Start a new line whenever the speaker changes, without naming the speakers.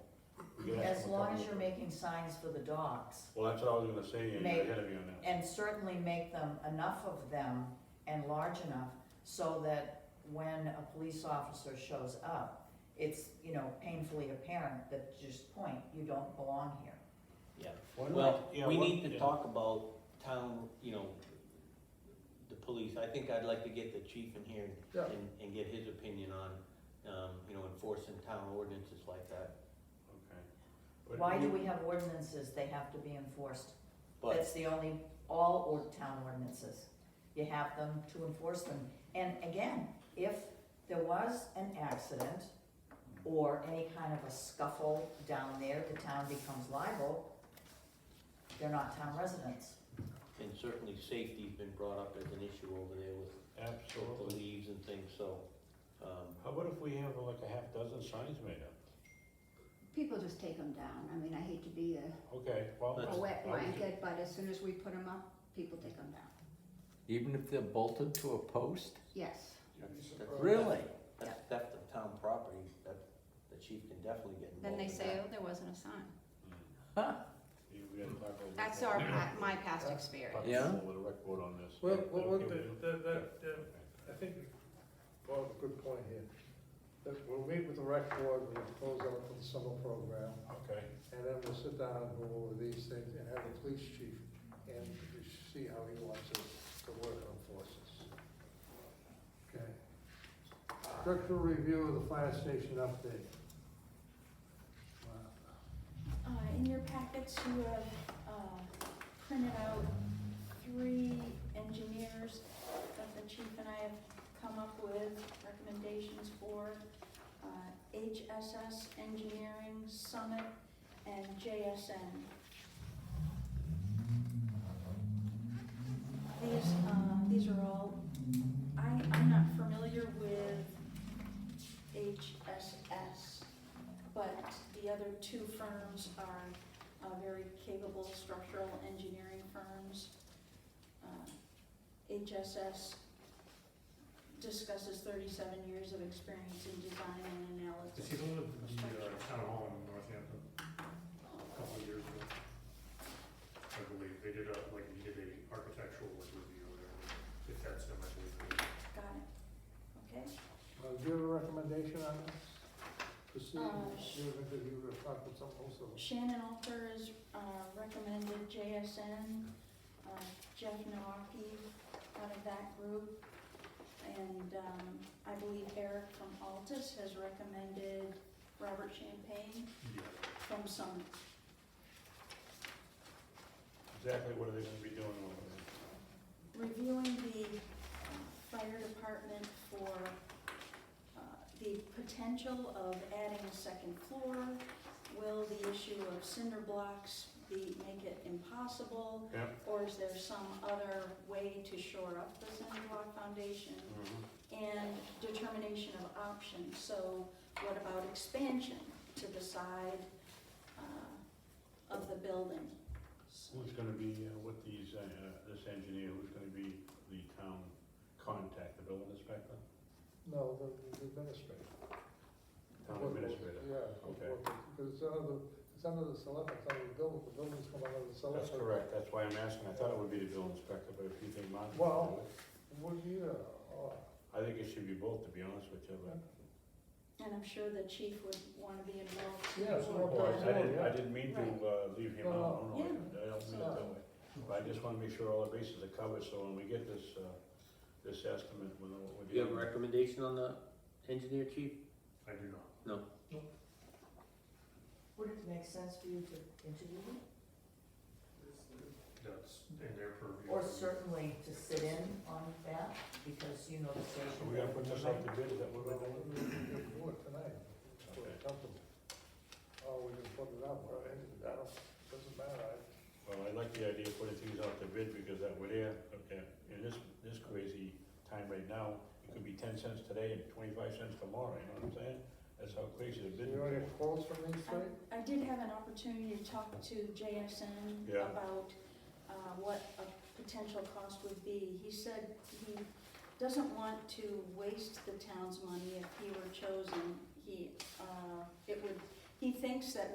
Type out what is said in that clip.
you have
As
some
long
problem
as you're
with it.
making signs for the dogs,
Well, that's what I was gonna say, you're
Make-
ahead of me on that.
and certainly make them, enough of them and large enough so that when a police officer shows up, it's, you know, painfully apparent that just point, you don't belong here.
yeah.
Why not?
Well,
Yeah,
we
why-
need to
yeah.
talk about town, you know, the police, I think I'd like to get the chief in here
Yeah.
and, and get his opinion on, um, you know, enforcing town ordinances like that,
Okay. But
Why do we have ordinances? They have to be enforced.
but,
That's the only, all or town ordinances. You have them to enforce them. And again, if there was an accident or any kind of a scuffle down there, the town becomes liable. They're not town residents.
and certainly safety's been brought up as an issue over there with with the
Absolutely.
leaves and things, so, um,
How about if we have like a half dozen signs made up?
People just take them down. I mean, I hate to be a,
Okay, well.
That's-
a wet
I'll-
blanket, but as soon as we put them up, people take them down.
Even if they're bolted to a post?
Yes.
Really?
that's theft of town property, that, the chief can definitely get involved
Then they
in
say,
that.
oh, there wasn't a sign.
Huh?
Hmm. You- we gotta talk a little
That's
bit
our,
more.
pa- my past experience.
Talk
Yeah.
a little with a rec board on this.
Well,
Is that
well,
okay
well,
with
the-
you?
the- the- the-
Okay.
I think Bob's a good point here. That we'll meet with the rec board, we'll close out for the summer program,
Okay,
and then we'll sit down and go over these things and have the police chief and we see how he wants to, to work on forces. Okay. Structural review of the fire station update. Wow.
Uh, in your packets, you have, uh, printed out three engineers that the chief and I have come up with recommendations for. Uh, HSS Engineering Summit and JSN. These, uh, these are all, I, I'm not familiar with HSS but the other two firms are uh, very capable structural engineering firms. Uh, HSS discusses thirty-seven years of experience in design and
Is he the
analysis.
one at the uh, town hall in Northampton a couple of years ago? I believe, they did a, like, he did a architectural like, review there, if that's him, I believe. it is.
Got it, okay?
Uh, do you have a recommendation on this? Christine,
Uh, sh-
you have interviewed or talked with someone else? or-
Shannon Alter is uh, recommended JSN, uh, Jeff Nowaki out of that group. And um, I believe Eric from Altus has recommended Robert Champagne
Yeah,
from Summit.
exactly what are they gonna be doing over there?
Reviewing the uh, fire department for uh, the potential of adding a second floor. Will the issue of cinder blocks be, make it impossible?
Yeah.
Or is there some other way to shore up the cinder block foundation?
Mhm.
And determination of options, so what about expansion to the side uh, of the building?
Who's gonna be, uh, with these, uh, this engineer, who's gonna be the town contact, the building inspector?
No, the, the administrator.
Town Oh, administrator?
Yeah.
Okay.
Because it's under, it's under the select, it's under the building, the building's come under the select.
That's correct, that's why I'm asking, I thought it would be the building inspector, but if you think Martin.
Well- Well, yeah, oh,
I think it should be both, to be honest with you, but.
And I'm sure the chief would want to be involved.
Yeah,
too,
sure.
Well, I
but-
didn't, I didn't mean to
Right.
uh, leave him
No,
out, no, no, I
Yeah.
didn't- I don't mean it that way. But I just wanna make sure all the bases are covered, so when we get this, uh, this estimate, we know what we're
You have
dealing
a
with.
recommendation on the engineer chief?
I do not.
Would it make sense for you to interview them?
That's in their purview.
Or certainly to sit in on that, because you know the station.
So we gotta put this up to bid, is that what
well,
we're doing?
we can do it tonight, if we're
Okay.
comfortable. Oh, we can put it up, or, I don't, doesn't matter, I,
Well, I like the idea of putting things out to bid, because that way there, okay, in this, this crazy time right now, it could be ten cents today and twenty-five cents tomorrow, you know what I'm saying? That's how crazy the
do
bid
you want to
is.
get quotes from these three?
um, I I did have an opportunity to talk to JSN
Yeah.
about uh, what a potential cost would be. He said he doesn't want to waste the town's money if he were chosen. He, uh, it would, he thinks that